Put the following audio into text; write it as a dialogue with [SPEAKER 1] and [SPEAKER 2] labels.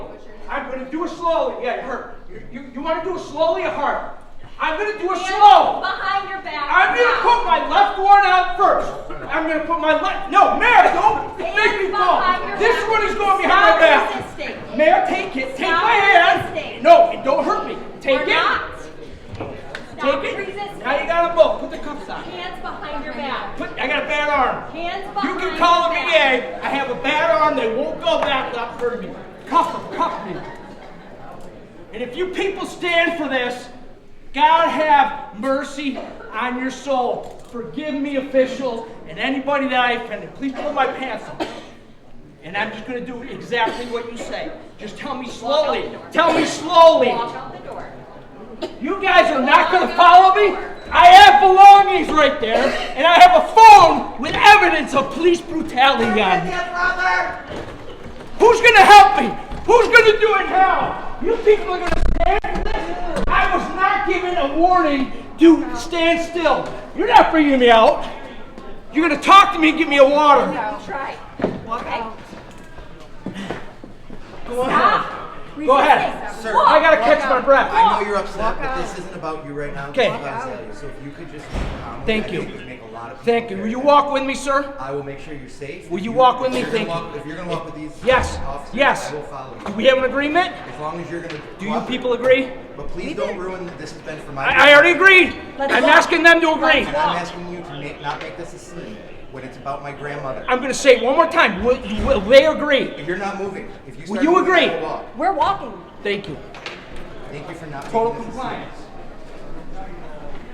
[SPEAKER 1] I'm gonna do it slowly. Yeah, it hurt. You, you, you wanna do it slowly or hard? I'm gonna do it
[SPEAKER 2] Hands
[SPEAKER 1] slow.
[SPEAKER 2] Behind your back.
[SPEAKER 1] I'm gonna
[SPEAKER 2] now.
[SPEAKER 1] put my left one out first. I'm gonna put my left. No, Mayor, don't make me
[SPEAKER 2] Hands
[SPEAKER 1] fall.
[SPEAKER 2] behind your
[SPEAKER 1] This
[SPEAKER 2] back.
[SPEAKER 1] one is going
[SPEAKER 2] Stop
[SPEAKER 1] behind my back.
[SPEAKER 2] resisting.
[SPEAKER 1] Mayor, take it. Take
[SPEAKER 2] Stop
[SPEAKER 1] my hand.
[SPEAKER 2] resisting.
[SPEAKER 1] No, and don't hurt me. Take
[SPEAKER 2] We're
[SPEAKER 1] it.
[SPEAKER 2] not. Stop
[SPEAKER 1] Take it.
[SPEAKER 2] resisting.
[SPEAKER 1] Now you got them both. Put the cuffs on.
[SPEAKER 2] Hands behind your back.
[SPEAKER 1] Put. I got a bad arm.
[SPEAKER 2] Hands
[SPEAKER 1] You
[SPEAKER 2] behind
[SPEAKER 1] can call
[SPEAKER 2] your
[SPEAKER 1] them
[SPEAKER 2] back.
[SPEAKER 1] EA. I have a bad arm. They won't go back up for me. Cuff them, cuff me. And if you people stand for this, God have mercy on your soul. Forgive me, officials, and anybody that I offended. Please pull my pants up. And I'm just going to do exactly what you say. Just tell me slowly. Tell me slowly.
[SPEAKER 2] Walk out the door.
[SPEAKER 1] You guys are not going to follow me? I have belongings right there, and I have a phone with evidence of police brutality on it. Who's going to help me? Who's going to do it now? You people are going to stand for this? I was not given a warning to stand still. You're not bringing me out. You're going to talk to me and give me a water.
[SPEAKER 2] No. Try.
[SPEAKER 1] Walk
[SPEAKER 2] out.
[SPEAKER 1] Go ahead.
[SPEAKER 2] Stop.
[SPEAKER 1] Go ahead.
[SPEAKER 2] resisting.
[SPEAKER 3] Sir,
[SPEAKER 2] Walk.
[SPEAKER 1] I got to catch my breath.
[SPEAKER 3] I know you're upset, but this isn't about you right now. This
[SPEAKER 1] Okay.
[SPEAKER 3] is about Azalea. So if you could just calm
[SPEAKER 1] Thank
[SPEAKER 3] down,
[SPEAKER 1] you.
[SPEAKER 3] I think it would make a lot of people
[SPEAKER 1] Thank you. Will
[SPEAKER 3] very
[SPEAKER 1] you
[SPEAKER 3] happy.
[SPEAKER 1] walk with me, sir?
[SPEAKER 3] I will make sure you're safe.
[SPEAKER 1] Will
[SPEAKER 3] If
[SPEAKER 1] you walk with
[SPEAKER 3] if
[SPEAKER 1] me?
[SPEAKER 3] you're gonna
[SPEAKER 1] Thank you.
[SPEAKER 3] walk- If you're gonna walk with these
[SPEAKER 1] Yes,
[SPEAKER 3] officers,
[SPEAKER 1] yes.
[SPEAKER 3] I will follow
[SPEAKER 1] Do
[SPEAKER 3] you.
[SPEAKER 1] we have an agreement?
[SPEAKER 3] As long as you're gonna.
[SPEAKER 1] Do you
[SPEAKER 3] cooperate.
[SPEAKER 1] people agree?
[SPEAKER 3] But please don't ruin the- this. Has been for my.
[SPEAKER 1] I, I already agreed.
[SPEAKER 2] Let's
[SPEAKER 1] I'm
[SPEAKER 2] walk.
[SPEAKER 1] asking them to agree.
[SPEAKER 3] And I'm asking you to make, not make this a scene when it's about my grandmother.
[SPEAKER 1] I'm gonna say it one more time. Will, will they agree?
[SPEAKER 3] If you're not moving, if you.
[SPEAKER 1] Will
[SPEAKER 3] start
[SPEAKER 1] you
[SPEAKER 3] moving, I
[SPEAKER 1] agree?
[SPEAKER 3] will walk.
[SPEAKER 2] We're walking.
[SPEAKER 1] Thank you.
[SPEAKER 3] Thank you for not.
[SPEAKER 1] Total
[SPEAKER 3] making this a scene.
[SPEAKER 1] compliance.